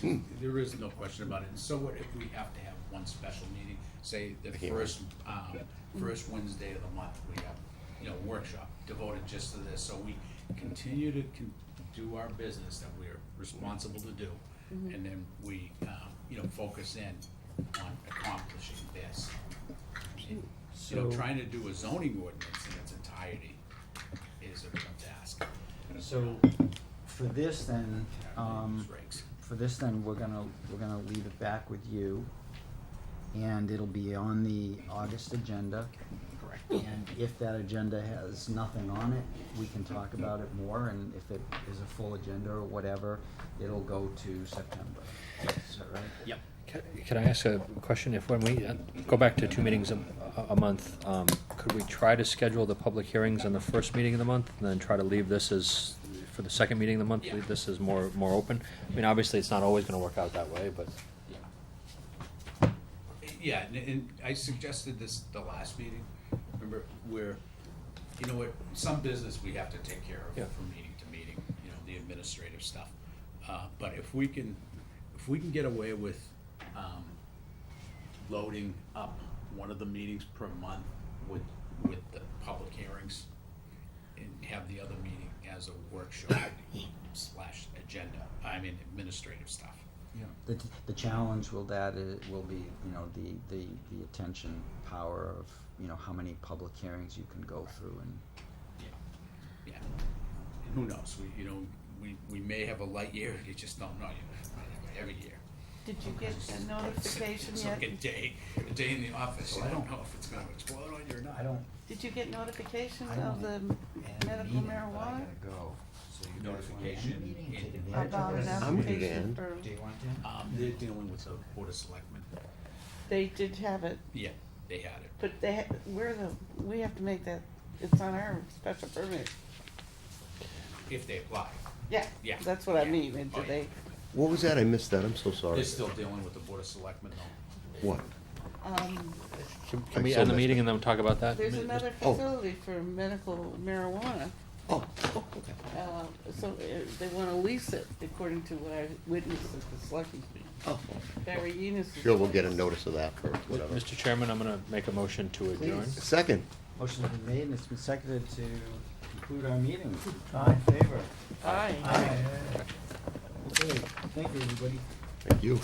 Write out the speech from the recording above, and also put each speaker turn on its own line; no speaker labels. Hmm.
There is no question about it. So what if we have to have one special meeting, say the
can't
first, um, first Wednesday of the month, we have, you know, workshop devoted just to this, so we continue to con- do our business that we're responsible to do, and then we, um, you know, focus in on accomplishing this. You know,
So-
trying to do a zoning ordinance in its entirety is a real task.
So, for this then, um,
Regs.
for this then, we're gonna, we're gonna leave it back with you. And it'll be on the August agenda.
Correct.
And if that agenda has nothing on it, we can talk about it more, and if it is a full agenda or whatever, it'll go to September. Is that right?
Yep.
Ca- Can I ask a question? If when we uh, go back to two meetings a, a- a month, um, could we try to schedule the public hearings on the first meeting of the month and then try to leave this as, for the second meeting of the month,
Yeah.
leave this as more, more open? I mean, obviously, it's not always gonna work out that way, but,
Yeah. Yeah, and, and I suggested this the last meeting, remember, where, you know what, some business we have to take care
Yeah.
of from meeting to meeting, you know, the administrative stuff. Uh, but if we can, if we can get away with, um, loading up one of the meetings per month with, with the public hearings, and have the other meeting as a workshop slash agenda, I mean administrative stuff.
The, the challenge will that i- will be, you know, the, the, the attention power of, you know, how many public hearings you can go through and
Yeah, yeah. And who knows? We, you know, we, we may have a light year. You just don't know. You every year.
Did you get a notification
It's
yet?
like a day, a day in the office. You don't know if it's going to explode on you or not.
I don't.
Did you get notification
I
of
don't
the
have a
medical
meeting, but I
marijuana?
gotta go, so you guys want to end
Notification
the meeting and
in-
take advantage of
About
this?
an
I'm gonna do
application
that.
for,
Do you want to?
Um, they're dealing with the board of selectmen.
they did have it,
Yeah, they had it.
but they, ha- we're the, we have to make that, it's on our special permit.
If they apply,
Yeah,
Yeah,
that's what I
yeah.
mean, and
Oh,
do
yeah.
they,
What was that? I missed that. I'm so sorry.
they're still dealing with the board of selectmen though.
What?
um,
can
I
can we
so
end the
missed
meeting
it.
and then talk about that?
there's
Mi-
another
oh.
facility for medical marijuana.
Oh,
Uh, so uh, they wanna lease it according to what I witnessed at the selectmen's meeting.
oh.
Barry Enos.
Sure, we'll get a notice of that for
Mi-
whatever.
Mr. Chairman, I'm gonna make a motion to adjourn.
Please.
Second.
Motion's been made and it's been seconded to conclude our meeting. All in favor?
Aye.
Aye. Okay, thank you, everybody.
Thank you.